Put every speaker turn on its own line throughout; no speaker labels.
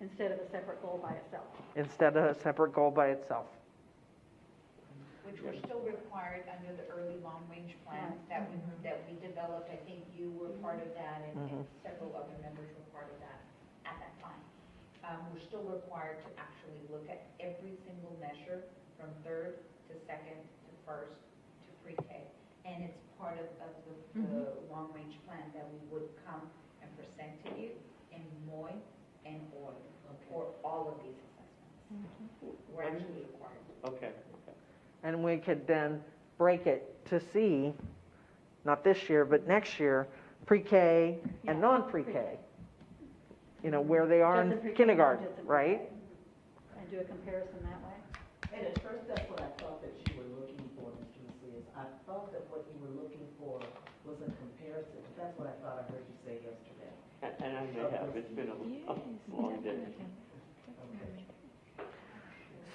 instead of a separate goal by itself.
instead of a separate goal by itself.
which were still required under the early long-range plan
Right.
that we, that we developed. I think you were part of that and and several other members were part of that at that time. Um, we're still required to actually look at every single measure from third to second to first to pre-K. And it's part of, of the, the long-range plan that we would come and present to you in MOI and OI for all of these assessments.
Mm-hmm.
We're actually required.
Okay.
And we could then break it to see, not this year, but next year, pre-K
Yeah,
and non-pre-K.
pre-K.
You know, where they are
Just in
in
pre-K,
kindergarten,
just in
right?
pre-K. And do a comparison that way.
And at first, that's what I thought that you were looking for, Mr. Macias. I thought that what you were looking for was a comparison. That's what I thought I heard you say yesterday.
And and I may have, it's been a a long day.
Okay.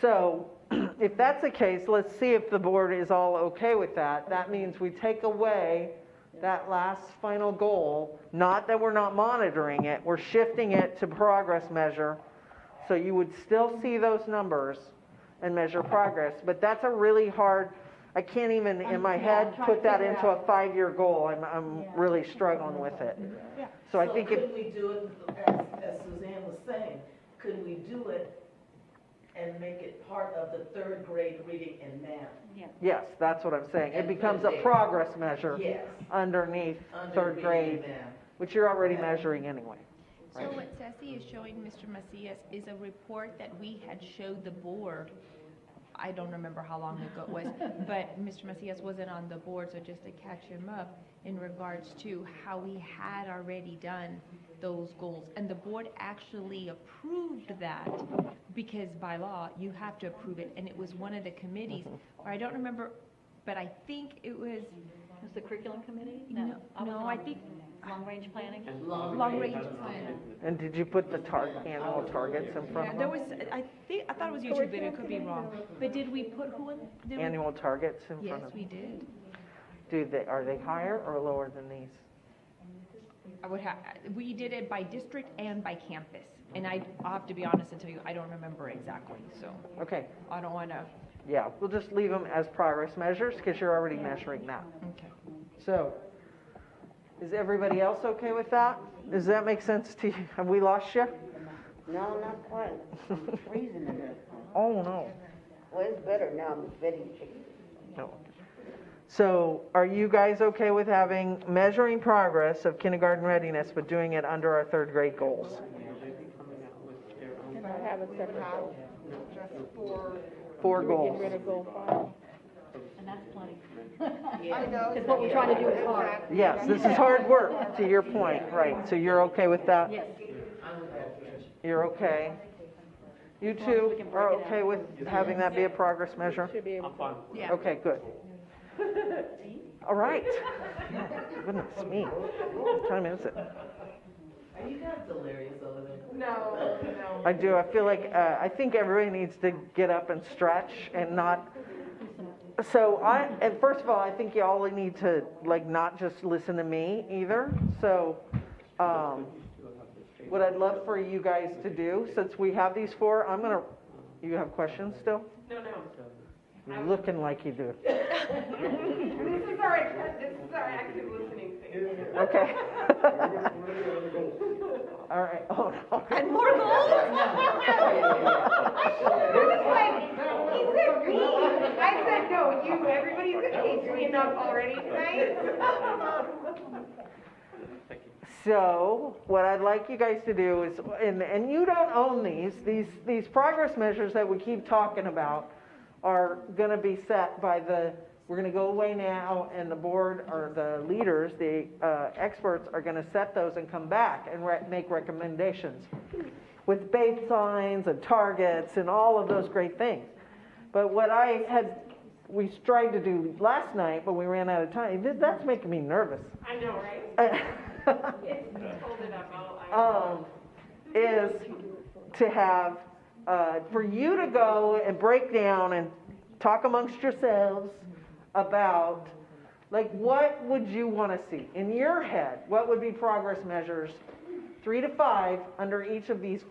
So if that's the case, let's see if the board is all okay with that. That means we take away that last final goal, not that we're not monitoring it, we're shifting it to progress measure. So you would still see those numbers and measure progress, but that's a really hard, I can't even in
I'm- Um, yeah,
my
I'm
head
trying
put
to
that
figure
into
out.
a five-year goal. I'm, I'm
Yeah.
really struggling with it. So I think if
Could we do it, as, as Suzanne was saying, could we do it and make it part of the third grade reading and math?
Yeah.
Yes, that's what I'm saying. It
And
becomes
put
a
it there.
progress measure
Yes,
underneath
under
third
reading
grade,
and math.
which you're already
Yeah.
measuring anyway.
So what Sassy is showing Mr. Macias is a report that we had showed the board. I don't remember how long ago it was, but Mr. Macias wasn't on the board, so just to catch him up in regards to how we had already done those goals. And the board actually approved that because by law, you have to approve it. And it was one of the committees,
Mm-hmm.
or I don't remember, but I think it was
Is the curriculum committee?
No,
was
no,
on
I think-
Long-range planning?
And-
Long
Long range plan.
And did you put the tar, annual targets in front
Yeah,
of
there
them?
was, I think, I thought it was YouTube, but it could be wrong. But did we put who in? did we-
Annual targets in
Yes,
front of
we
them?
did.
Do they, are they higher or lower than these?
I would have, we did it by district and by campus. And I, I'll have to be honest and tell you, I don't remember exactly, so
Okay,
I don't wanna,
yeah, we'll just leave them as progress measures because you're already measuring that.
okay.
So, is everybody else okay with that? Does that make sense to you? Have we lost you?
No, not quite. I'm freezing in here.
Oh, no.
Well, it's better now, I'm getting chicken.
No. So are you guys okay with having measuring progress of kindergarten readiness, but doing it under our third grade goals?
I have a separate goal, just for.
Four
Get rid
goals.
of goal five.
And that's plenty.
Yeah.
I know.
Because what we're trying to do is hard.
Oh, Exactly.
Yes, this is hard work, to your point, right, so you're okay with that?
Yes.
I'm with that, Patricia.
You're okay? You
As long as we
two
can break
are
it
okay
out.
with having that be a progress measure?
Should be able
I'm fine.
Yeah.
Okay, good. All right. Goodness me, what time is it?
Are you guys delirious over there?
No, no.
I do, I feel like, uh, I think everybody needs to get up and stretch and not, so I, and first of all, I think y'all need to, like, not just listen to me either, so, um, what I'd love for you guys to do, since we have these four, I'm gonna, you have questions still?
No, no.
You're looking like you do.
This Mm-hmm. is our, this is our active listening thing.
Okay. All right, oh, no.
And more goals?
He said me, I said, no, you, everybody's okay, three enough already tonight.
Thank you.
So, what I'd like you guys to do is, and, and you don't own these, these, these progress measures that we keep talking about are gonna be set by the, we're gonna go away now, and the board, or the leaders, the, uh, experts are gonna set those and come back and re- make recommendations with baselines and targets and all of those great things. But what I had, we tried to do last night, but we ran out of time, That- that's making me nervous.
I know, right? It's, hold it up, I'll,
um, is to have, uh, for you to go and break down and talk amongst yourselves about, like, what would you want to see? In your head, what would be progress measures, three to five, under each of these